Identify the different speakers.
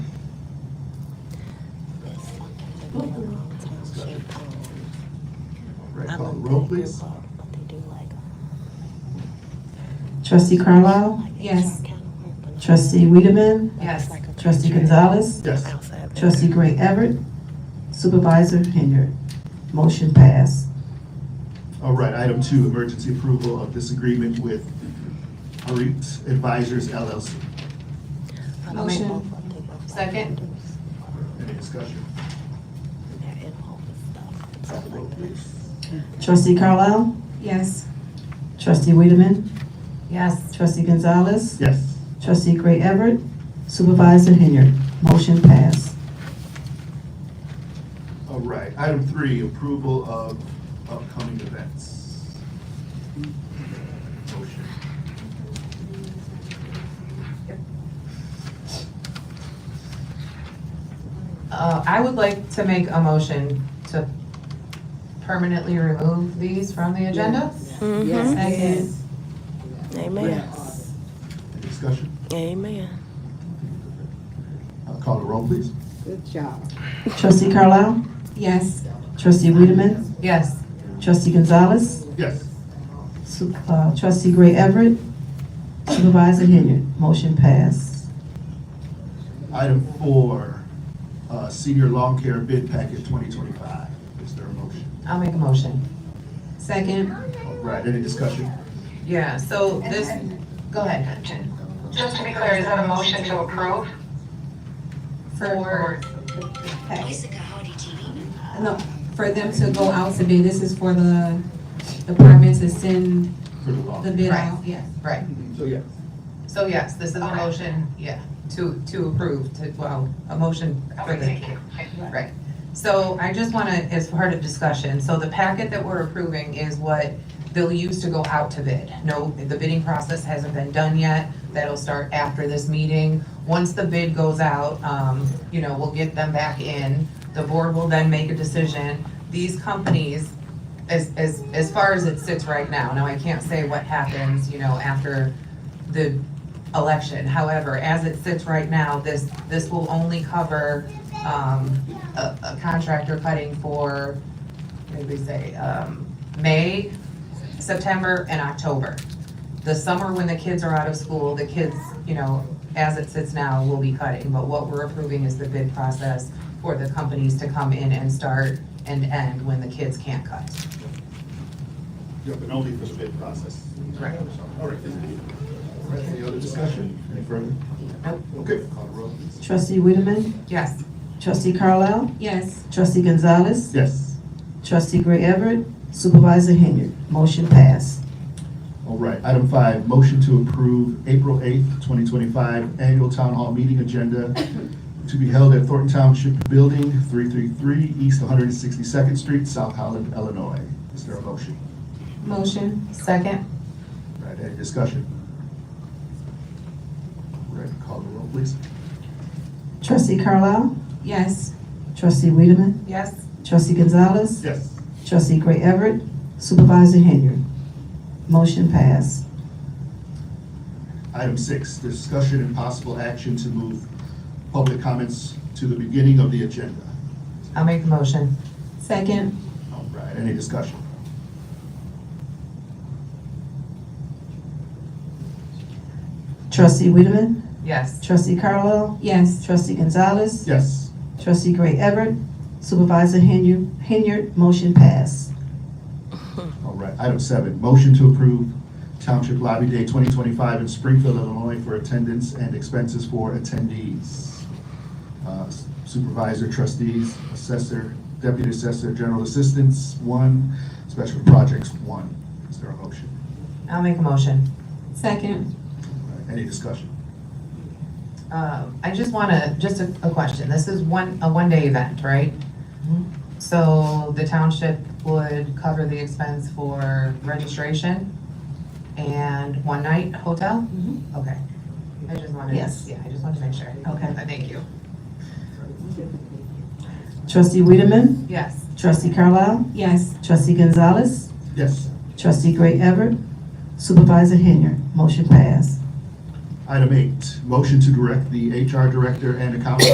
Speaker 1: Right, call the roll, please.
Speaker 2: Trustee Carlisle.
Speaker 3: Yes.
Speaker 2: Trustee Wiedemann.
Speaker 3: Yes.
Speaker 2: Trustee Gonzalez.
Speaker 1: Yes.
Speaker 2: Trustee Gray Everett. Supervisor Henry. Motion passed.
Speaker 1: All right, item two, emergency approval of this agreement with Harit Advisors LLC.
Speaker 3: Motion. Second.
Speaker 1: Any discussion? Call the roll, please.
Speaker 2: Trustee Carlisle.
Speaker 3: Yes.
Speaker 2: Trustee Wiedemann.
Speaker 3: Yes.
Speaker 2: Trustee Gonzalez.
Speaker 1: Yes.
Speaker 2: Trustee Gray Everett. Supervisor Henry. Motion passed.
Speaker 1: All right, item three, approval of upcoming events. Motion.
Speaker 3: Uh, I would like to make a motion to permanently remove these from the agenda. Second.
Speaker 4: Amen.
Speaker 1: Any discussion?
Speaker 4: Amen.
Speaker 1: Uh, Call the roll, please.
Speaker 5: Good job.
Speaker 2: Trustee Carlisle.
Speaker 3: Yes.
Speaker 2: Trustee Wiedemann.
Speaker 3: Yes.
Speaker 2: Trustee Gonzalez.
Speaker 1: Yes.
Speaker 2: Su- uh, Trustee Gray Everett. Supervisor Henry. Motion passed.
Speaker 1: Item four, uh, senior lawn care bid packet twenty twenty-five. Is there a motion?
Speaker 3: I'll make a motion. Second.
Speaker 1: All right, any discussion?
Speaker 3: Yeah, so this, go ahead.
Speaker 6: Just to be clear, is that a motion to approve?
Speaker 3: For,
Speaker 7: Voice of Coyote TV.
Speaker 8: No, for them to go out to bid, this is for the department to send
Speaker 1: For the lawn.
Speaker 8: the bid out, yes.
Speaker 3: right.
Speaker 1: So, yeah.
Speaker 3: So yes, this is a
Speaker 6: Okay.
Speaker 3: motion, yeah, to, to approve, to, well, a motion for
Speaker 6: Okay,
Speaker 3: the
Speaker 6: thank you.
Speaker 3: Right. So I just want to, as part of discussion, so the packet that we're approving is what they'll use to go out to bid. No, the bidding process hasn't been done yet. That'll start after this meeting. Once the bid goes out, um, you know, we'll get them back in. The board will then make a decision. These companies, as, as, as far as it sits right now, now I can't say what happens, you know, after the election. However, as it sits right now, this, this will only cover, um, a, a contractor cutting for, maybe say, um, May, September, and October. The summer when the kids are out of school, the kids, you know, as it sits now, will be cutting, but what we're approving is the bid process for the companies to come in and start and end when the kids can't cut.
Speaker 1: Yeah, but only for the bid process.
Speaker 3: Right.
Speaker 1: All right. All right, Any other discussion? Any further?
Speaker 3: Nope.
Speaker 1: Okay, call the roll, please.
Speaker 2: Trustee Wiedemann.
Speaker 3: Yes,
Speaker 2: Trustee Carlisle.
Speaker 8: Yes,
Speaker 2: Trustee Gonzalez.
Speaker 1: Yes.
Speaker 2: Trustee Gray Everett. Supervisor Henry. Motion passed.
Speaker 1: All right, item five, motion to approve April eighth, twenty twenty-five annual town hall meeting agenda to be held at Thornton Township Building, three-three-three East one hundred and sixty-second Street, South Holland, Illinois. Is there a motion?
Speaker 8: motion,
Speaker 3: second?
Speaker 1: All Right, any discussion? All Right, call the roll, please.
Speaker 2: Trustee Carlisle.
Speaker 8: yes.
Speaker 2: Trustee Wiedemann.
Speaker 3: Yes.
Speaker 2: Trustee Gonzalez.
Speaker 1: Yes.
Speaker 2: Trustee Gray Everett. Supervisor Henry. Motion passed.
Speaker 1: Item six, discussion and possible action to move public comments to the beginning of the agenda.
Speaker 3: I'll make the motion.
Speaker 8: Second,
Speaker 1: All right, any discussion?
Speaker 2: Trustee Wiedemann.
Speaker 3: Yes.
Speaker 2: Trustee Carlisle.
Speaker 8: yes.
Speaker 2: Trustee Gonzalez.
Speaker 1: Yes.
Speaker 2: Trustee Gray Everett. Supervisor Henry. Henry. Motion passed.
Speaker 1: All right, item seven, motion to approve Township Lobby Day 2025 in Springfield, Illinois for attendance and expenses for attendees. Uh, Supervisor, trustees, assessor, deputy assessor, general assistants, one, special projects, one. Is there a motion?
Speaker 3: I'll make a motion.
Speaker 8: Second,
Speaker 1: All right, Any discussion?
Speaker 3: Um, I just want to, just a, a question. This is one, a one-day event, right? So the township would cover the expense for registration and one-night hotel? Okay. I just wanted,
Speaker 2: Yes.
Speaker 3: yeah, I just wanted to make sure.
Speaker 2: Okay.
Speaker 3: Thank you.
Speaker 2: Trustee Wiedemann.
Speaker 3: Yes.
Speaker 2: Trustee Carlisle.
Speaker 8: yes.
Speaker 2: Trustee Gonzalez.
Speaker 1: Yes.
Speaker 2: Trustee Gray Everett. Supervisor Henry. Motion passed.
Speaker 1: Item eight, motion to direct the HR director and accountant